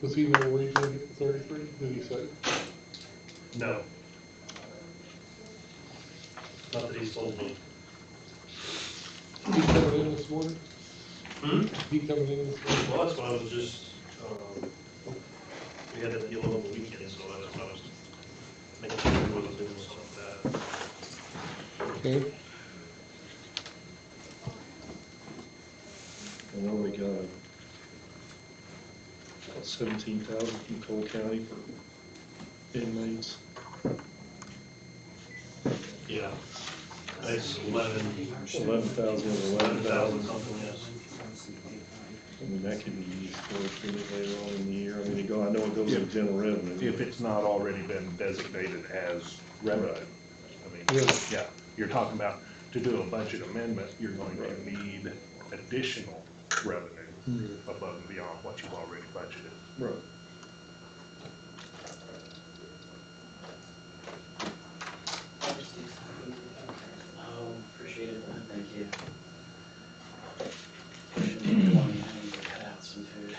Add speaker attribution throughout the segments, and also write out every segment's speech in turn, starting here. Speaker 1: Does he know where he's gonna get the thirty-three? Did he say?
Speaker 2: No. Not that he's told me.
Speaker 1: He coming in this morning?
Speaker 2: Hmm?
Speaker 1: He coming in this morning?
Speaker 2: Well, that's why I was just, um, we had that deal over the weekend, so that's why I was making sure he wasn't doing something like
Speaker 1: Okay.
Speaker 3: And then we got about seventeen thousand from Cole County for inmates.
Speaker 2: that. Yeah. It's eleven,
Speaker 3: Eleven thousand of
Speaker 2: eleven
Speaker 3: eleven
Speaker 2: thousand
Speaker 3: thousand.
Speaker 2: something, yes.
Speaker 3: I mean, that could be used for it pretty later on in the year. I mean, it go, I know it goes to general revenue.
Speaker 4: if it's not already been designated as revenue. I mean,
Speaker 1: Yeah.
Speaker 4: yeah, you're talking about, to do a budget amendment, you're going to need additional revenue above and beyond what you've already budgeted.
Speaker 3: Right.
Speaker 5: Oh, appreciate it, man, thank you. Pushing twenty, I need to cut out some food.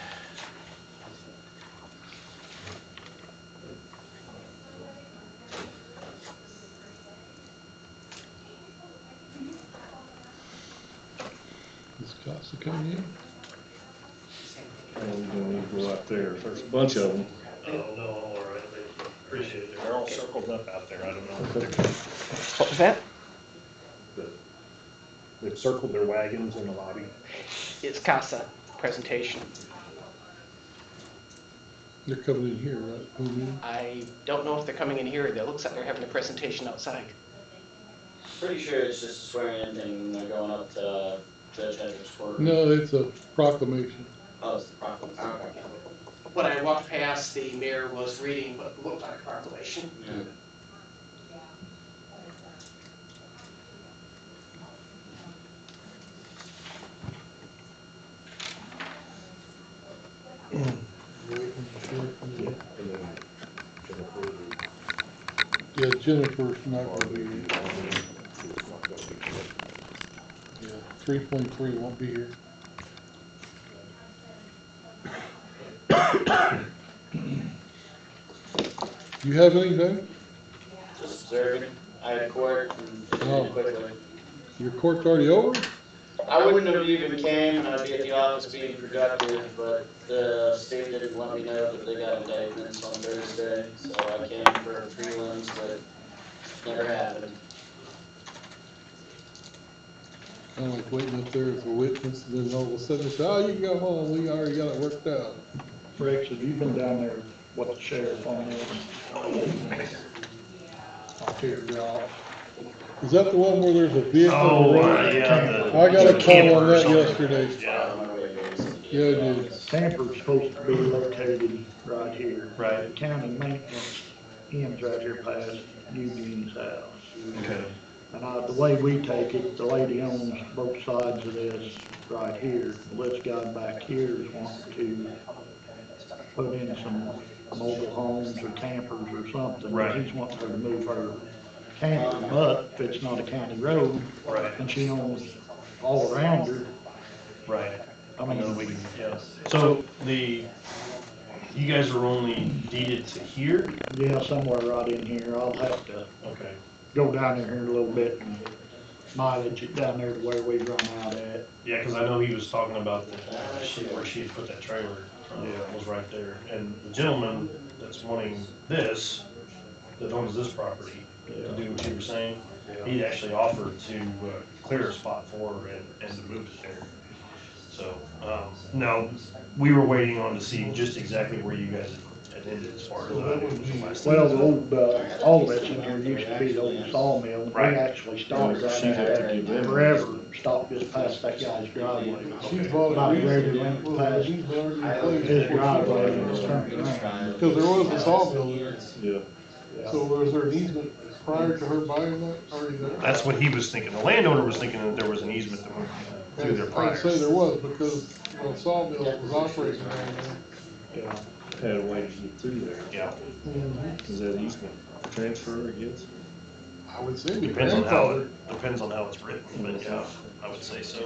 Speaker 1: Is Costa coming in?
Speaker 3: And we're gonna need to go out there. There's a bunch of them.
Speaker 2: Oh, no, I'm all right, I appreciate it. They're all circled up out there, I don't know what they're
Speaker 6: What was that?
Speaker 4: The- They've circled their wagons in the lobby.
Speaker 6: It's CASA presentation.
Speaker 1: They're coming in here, right? Mhm.
Speaker 6: I don't know if they're coming in here, though. It looks like they're having a presentation outside.
Speaker 5: Pretty sure it's just a swearing in thing, and they're going up to uh, Judge Hedges for.
Speaker 1: No, it's a proclamation.
Speaker 5: Oh, it's the problem, okay.
Speaker 6: When I walked past, the mayor was reading what looked like a proclamation.
Speaker 5: Yeah.
Speaker 1: Yeah,
Speaker 4: And then Jennifer, who-
Speaker 1: Jennifer's not gonna be here.
Speaker 4: who's not gonna be here.
Speaker 1: Yeah, three point three won't be here. You have anything?
Speaker 5: Just observing, I had court and it
Speaker 1: Oh.
Speaker 5: ended quickly.
Speaker 1: Your court's already over?
Speaker 5: I wouldn't have even came, and I'd be at the office being productive, but the state didn't let me know that they got indictments on Thursday, so I came for prelims, but never happened.
Speaker 1: I'm like waiting up there for witness, and then all of a sudden, they say, oh, you can go home, we already got it worked out.
Speaker 7: Rex, have you been down there, what the sheriff on this?
Speaker 2: Oh, uh,
Speaker 1: I'll figure it
Speaker 7: uh,
Speaker 1: out. Is that the one where there's a vehicle?
Speaker 2: Oh, uh,
Speaker 1: running?
Speaker 2: yeah, the.
Speaker 1: I got a call on
Speaker 2: camper or
Speaker 1: that
Speaker 2: something.
Speaker 1: yesterday.
Speaker 2: Yeah,
Speaker 5: My way goes to the
Speaker 1: Yeah, it is.
Speaker 7: Sanford's supposed to be located right here.
Speaker 2: Right.
Speaker 7: The County maintenance ends right here past Eugene's house.
Speaker 2: okay.
Speaker 7: And I, the way we take it, the lady owns both sides of this right here. This guy back here is wanting to put in some mobile homes or campers or something.
Speaker 2: Right.
Speaker 7: He's wanting her to move her camper, but if it's not a county road.
Speaker 2: Right.
Speaker 7: And she owns all around her,
Speaker 2: Right.
Speaker 7: I mean.
Speaker 2: Yeah. So the, you guys are only deeded to here?
Speaker 7: Yeah, somewhere right in here. I'll have to
Speaker 2: Okay.
Speaker 7: go down there here a little bit and mileage it down there to where we run out at.
Speaker 2: Yeah, because I know he was talking about the, uh, she- where she had put that trailer, yeah,
Speaker 7: Yeah.
Speaker 2: was right there. And the gentleman that's wanting this, that owns this property, to do what you were saying, he actually offered to uh, clear a spot for her and, and to move it there. So, um, no, we were waiting on to see just exactly where you guys had ended as far as I knew was the last.
Speaker 7: Well, the old, uh, all that's in here used to be the old sawmill. We
Speaker 2: Right.
Speaker 7: actually started right
Speaker 3: She'd have to
Speaker 7: there
Speaker 3: give in.
Speaker 7: forever, stopped just past that guy's driveway.
Speaker 1: She's
Speaker 7: About
Speaker 1: volunteered.
Speaker 7: ready to rent the past.
Speaker 1: She's volunteered.
Speaker 7: His driveway was turned
Speaker 1: Cause
Speaker 7: around.
Speaker 1: there was a sawmill there,
Speaker 3: Yeah.
Speaker 1: so was there an easement prior to her buying that, already there?
Speaker 2: That's what he was thinking. The landowner was thinking that there was an easement that went through their
Speaker 1: I'd say there
Speaker 2: priors.
Speaker 1: was, because the sawmill was operating around there.
Speaker 7: Yeah.
Speaker 3: Had a way to get through there.
Speaker 2: Yeah,
Speaker 7: Mm-hmm.
Speaker 3: Is that easement transfer, I guess?
Speaker 1: I would say. we
Speaker 2: depends on
Speaker 1: grandfathered.
Speaker 2: how, it depends on how it's written, but yeah, I would say so.